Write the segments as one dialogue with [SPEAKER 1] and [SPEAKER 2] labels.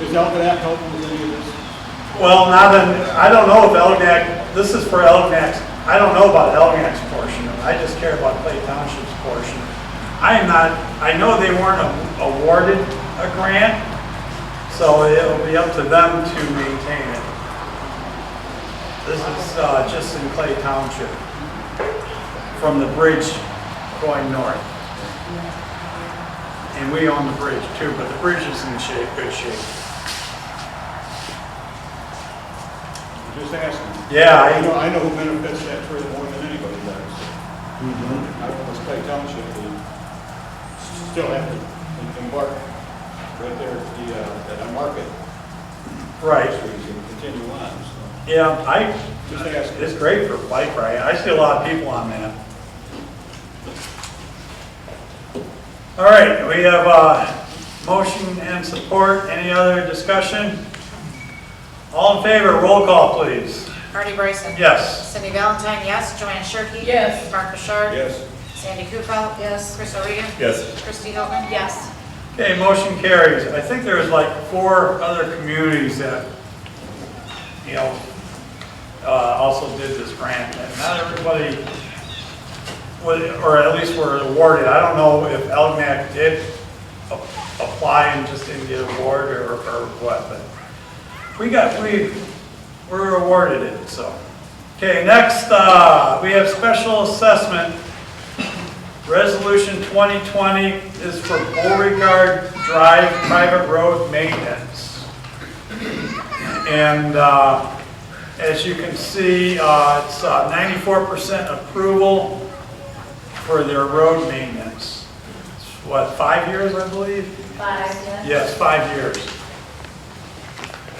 [SPEAKER 1] Is Elginak helping with any of this?
[SPEAKER 2] Well, not in, I don't know if Elginak, this is for Elginak's, I don't know about Elginak's portion, of it. I just care about Clay Township's portion. I am not, I know they weren't a- awarded a grant, so it'll be up to them to maintain it. This is uh, just in Clay Township, from the bridge going north. And we own the bridge too, but the bridge is in shape, good shape.
[SPEAKER 1] I'm Just asking.
[SPEAKER 2] Yeah, I-
[SPEAKER 1] I know, I know who benefits that tree more than anybody does.
[SPEAKER 2] Mm-hmm.
[SPEAKER 1] I don't know, Clay Township, will still have to embark right there at the, uh, at our market.
[SPEAKER 2] Right.
[SPEAKER 1] Trees and continue on, so.
[SPEAKER 2] Yeah, I,
[SPEAKER 1] Just asking.
[SPEAKER 2] it's great for bike ride. I see a lot of people on that. All right, we have a motion and support. Any other discussion? All in favor, roll call, please.
[SPEAKER 3] Artie Bryson?
[SPEAKER 2] Yes.
[SPEAKER 3] Cindy Valentine, yes. Joanne Sherkey?
[SPEAKER 4] Yes.
[SPEAKER 3] Mark Bouchard?
[SPEAKER 1] Yes,
[SPEAKER 3] Sandy Kupel? Yes. Chris O'Regan?
[SPEAKER 2] Yes.
[SPEAKER 3] Kristi Hilton? Yes.
[SPEAKER 2] Okay, motion carries. I think there's like four other communities that, you know, uh, also did this grant. And not everybody, was- or at least were awarded. I don't know if Elginak did a- apply and just didn't get awarded or or what, but we got, we were awarded it, so. Okay, next, uh, we have special assessment Resolution 2020 is for Beauregard Drive private road maintenance. And uh, as you can see, uh, it's uh, 94% approval for their road maintenance. It's, What, five years, I believe?
[SPEAKER 4] Five,
[SPEAKER 2] Yes,
[SPEAKER 4] yes.
[SPEAKER 2] five years.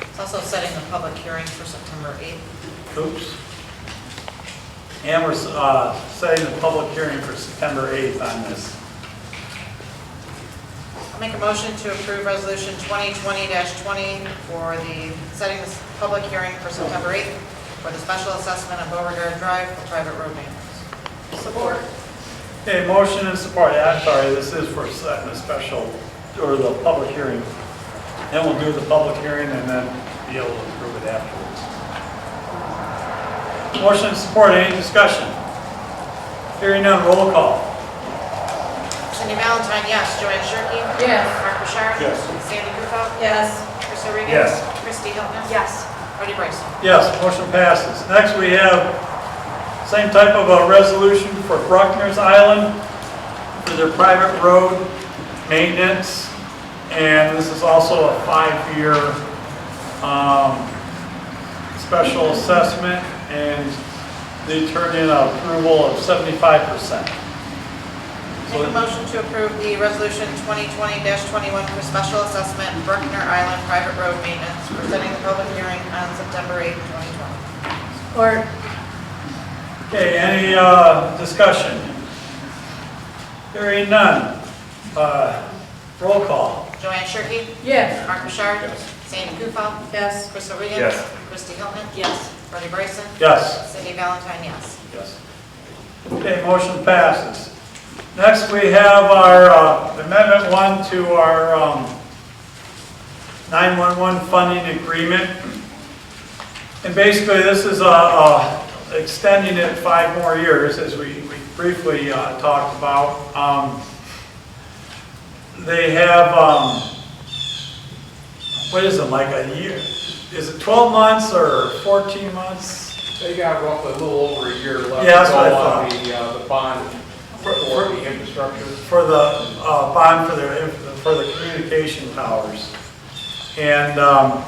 [SPEAKER 3] It's also setting the public hearing for September 8th.
[SPEAKER 2] Oops. And we're uh, setting the public hearing for September 8th on this.
[SPEAKER 3] I'll make a motion to approve Resolution 2020-20 for the, setting this public hearing for September 8th for the special assessment of Beauregard Drive for private road maintenance.
[SPEAKER 4] Support.
[SPEAKER 2] Okay, motion and support, I'm sorry, this is for setting a special, or the public hearing. Then we'll do the public hearing and then be able to approve it afterwards. Motion and support, any discussion? Hearing none, roll call.
[SPEAKER 3] Cindy Valentine, yes. Joanne Sherkey?
[SPEAKER 4] Yes.
[SPEAKER 3] Mark Bouchard?
[SPEAKER 1] Yes.
[SPEAKER 3] Sandy Kupel?
[SPEAKER 4] Yes.
[SPEAKER 3] Chris O'Regan?
[SPEAKER 2] Yes.
[SPEAKER 3] Kristi Hilton?
[SPEAKER 4] Yes.
[SPEAKER 3] Artie Bryson?
[SPEAKER 2] Yes, motion passes. Next, we have same type of a resolution for Bruckner's Island for their private road maintenance. And this is also a five-year um, special assessment, and they turned in an approval of 75%.
[SPEAKER 3] Make a motion to approve the resolution 2020-21 for special assessment Bruckner Island private road maintenance, presenting the public hearing on September 8, 2020.
[SPEAKER 4] Or,
[SPEAKER 2] Okay, any uh, discussion? Hearing none. Uh, Roll call.
[SPEAKER 3] Joanne Sherkey?
[SPEAKER 4] yes.
[SPEAKER 3] Mark Bouchard?
[SPEAKER 1] Yes.
[SPEAKER 3] Sandy Kufal?
[SPEAKER 4] Yes.
[SPEAKER 3] Chris O'Regan?
[SPEAKER 2] Yes.
[SPEAKER 3] Kristi Hilton?
[SPEAKER 4] Yes.
[SPEAKER 3] Artie Bryson?
[SPEAKER 2] Yes.
[SPEAKER 3] Cindy Valentine, yes.
[SPEAKER 2] Yes. Okay, motion passes. Next, we have our uh, Amendment 1 to our um, 911 funding agreement. And basically, this is uh, uh, extending it five more years, as we we briefly uh, talked about. Um, They have, um, what is it, like a year? Is it 12 months or 14 months?
[SPEAKER 5] They got roughly a little over a year left.
[SPEAKER 2] Yeah, that's
[SPEAKER 5] to
[SPEAKER 2] what I
[SPEAKER 5] go
[SPEAKER 2] thought.
[SPEAKER 5] On the, uh, the bond for the infrastructure.
[SPEAKER 2] for the uh, bond for the, for the communication towers. And um,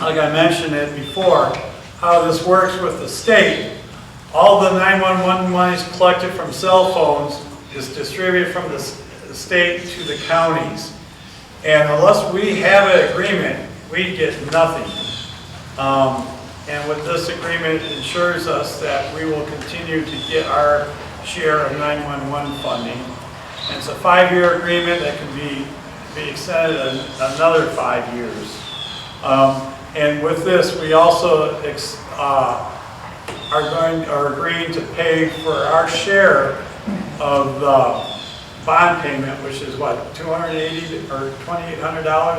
[SPEAKER 2] like I mentioned it before, how this works with the state, all the 911 monies collected from cell phones is distributed from the s- state to the counties. And unless we have an agreement, we get nothing. Um, And with this agreement ensures us that we will continue to get our share of 911 funding. And It's a five-year agreement that can be, be extended an- another five years. Um, And with this, we also ex- uh, are going, are agreeing to pay for our share of the bond payment, which is what, 280 or $2,800?